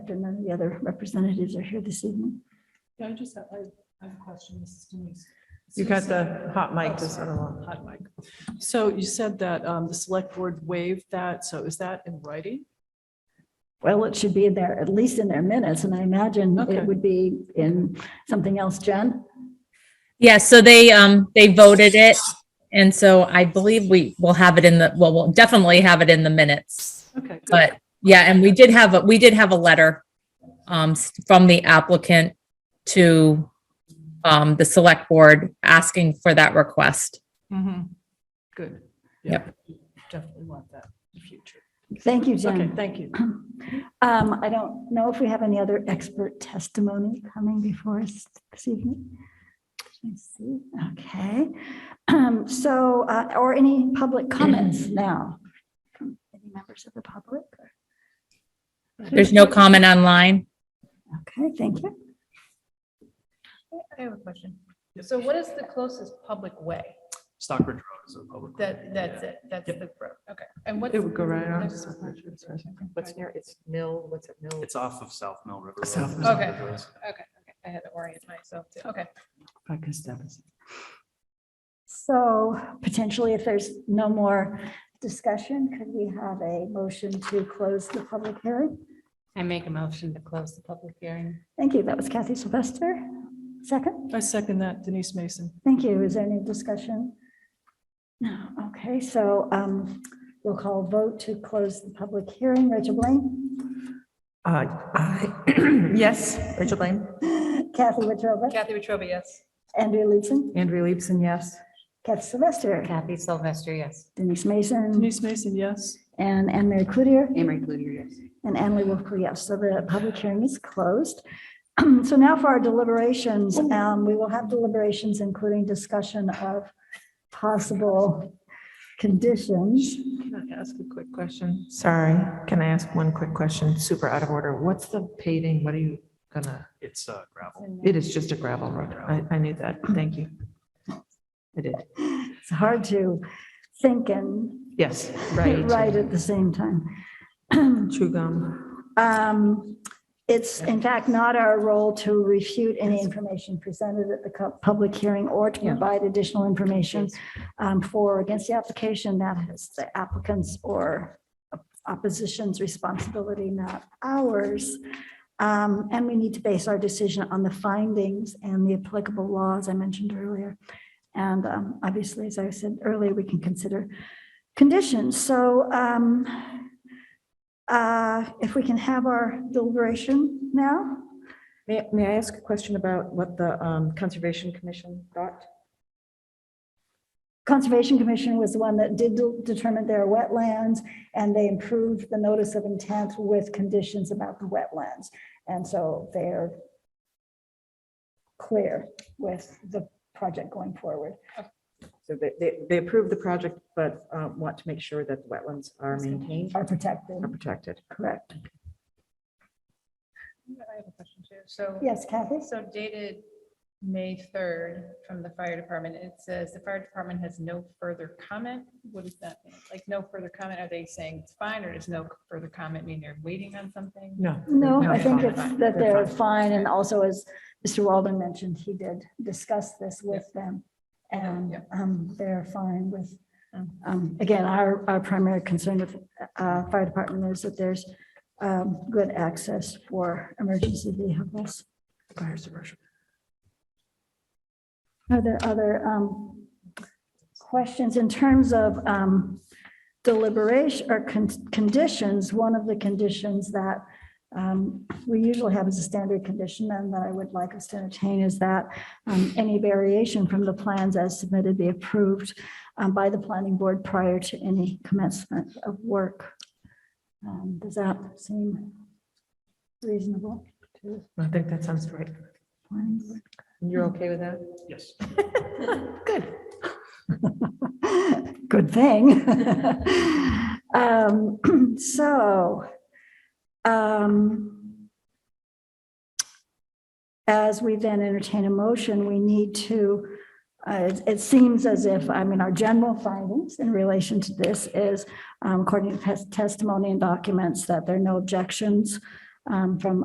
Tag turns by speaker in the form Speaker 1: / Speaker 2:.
Speaker 1: And none of the other representatives are here this evening.
Speaker 2: Yeah, I just have, I I have a question, Mrs. Denise.
Speaker 3: You got the hot mic
Speaker 2: Oh,
Speaker 3: this
Speaker 2: sorry,
Speaker 3: other one.
Speaker 2: Hot mic. So you said that um, the select board waived that, so is that in writing?
Speaker 1: Well, it should be in there, at least in their minutes, and I imagine
Speaker 2: Okay.
Speaker 1: it would be in something else, Jen?
Speaker 4: Yeah, so they, um, they voted it. And so I believe we will have it in the, well, we'll definitely have it in the minutes.
Speaker 2: Okay. good.
Speaker 4: But yeah, and we did have, a we did have a letter, um, s- from the applicant to, um, the select board asking for that request.
Speaker 2: Mhm. Good. Yeah. Definitely want that in the future.
Speaker 1: Thank you,
Speaker 2: Okay,
Speaker 1: Jen.
Speaker 2: thank you.
Speaker 1: Um, I don't know if we have any other expert testimony coming before us this evening. Let's see, okay. Um, so, uh, or any public comments now? from Any members of the public?
Speaker 4: There's no comment online.
Speaker 1: Okay, thank you.
Speaker 5: I have a question.
Speaker 2: Yep.
Speaker 5: So what is the closest public way?
Speaker 6: Stockbridge Road is a public. road.
Speaker 5: That, that's
Speaker 6: Yeah.
Speaker 5: it, that's the road, okay. And what's?
Speaker 3: It would go right on.
Speaker 5: next-
Speaker 7: What's near, it's Mill, what's it, Mill?
Speaker 6: It's off of South Mill River. Road.
Speaker 3: South Mill.
Speaker 5: Okay, okay, okay. I had to orient myself too, okay.
Speaker 1: So potentially, if there's no more discussion, could we have a motion to close the public hearing?
Speaker 7: I make a motion to close the public hearing.
Speaker 1: Thank you. That was Kathy Sylvester. Second,
Speaker 2: I second that, Denise Mason.
Speaker 1: thank you. Is there any discussion? No, okay, so um, we'll call vote to close the public hearing. Rachel Blaine,
Speaker 3: Uh, aye. Yes, Rachel Blaine.
Speaker 1: Kathy Wetruba,
Speaker 5: Kathy Wetruba, yes.
Speaker 1: Andrea Leeson,
Speaker 3: Andrea Leibson, yes.
Speaker 1: Kathy Sylvester,
Speaker 7: Kathy Sylvester, yes.
Speaker 1: Denise Mason,
Speaker 2: Denise Mason, yes.
Speaker 1: and Anne Mary Cloutier.
Speaker 7: Amory Cludier, yes.
Speaker 1: And Annalee Wolfco, yes. So the public hearing is closed. So now for our deliberations, um, we will have deliberations, including discussion of possible conditions.
Speaker 3: Can I ask a quick question? Sorry, can I ask one quick question? Super out of order. What's the paving? What are you gonna,
Speaker 6: It's uh, gravel.
Speaker 3: it is just a gravel road. I, I knew that. Thank you. I did.
Speaker 1: It's hard to think and
Speaker 3: Yes, right.
Speaker 1: write at the same time.
Speaker 3: True gum.
Speaker 1: Um, It's in fact not our role to refute any information presented at the cu- public hearing or to provide additional information um, for or against the application. That is the applicant's or opposition's responsibility, not ours. Um, And we need to base our decision on the findings and the applicable laws I mentioned earlier. And um, obviously, as I said earlier, we can consider conditions. So um, uh, if we can have our deliberation now?
Speaker 7: May, may I ask a question about what the um, Conservation Commission thought?
Speaker 1: Conservation Commission was the one that did de- determine their wetlands, and they improved the notice of intent with conditions about the wetlands. And so they're clear with the project going forward.
Speaker 7: So they, they, they approved the project, but uh, want to make sure that the wetlands are maintained
Speaker 1: Are protected,
Speaker 7: or protected.
Speaker 1: correct?
Speaker 5: I have a question too. So.
Speaker 1: Yes, Kathy?
Speaker 5: So dated May 3rd from the fire department, it says the fire department has no further comment. What does that mean? Like no further comment? Are they saying it's fine or does no further comment mean they're waiting on something?
Speaker 3: No.
Speaker 1: No, I
Speaker 5: Okay.
Speaker 1: think
Speaker 5: Fine.
Speaker 1: it's that they're fine, and also as Mr. Walden mentioned, he did discuss this with them. And
Speaker 5: Yeah.
Speaker 1: um, they're fine with, um, again, our, our primary concern with uh, fire department is that there's um, good access for emergency vehicles.
Speaker 3: Fire suppression.
Speaker 1: Are there other um, questions in terms of um, deliberation or con- conditions? One of the conditions that um, we usually have as a standard condition and that I would like us to entertain is that um, any variation from the plans as submitted be approved um, by the planning board prior to any commencement of work. Um, Does that seem reasonable to
Speaker 3: I think that sounds right.
Speaker 1: the planning board?
Speaker 7: You're okay with that?
Speaker 6: Yes.
Speaker 1: Good thing. Um, So, um, as we then entertain a motion, we need to, uh, it- it seems as if, I mean, our general findings in relation to this is, um, according to tes- testimony and documents, that there are no objections um, from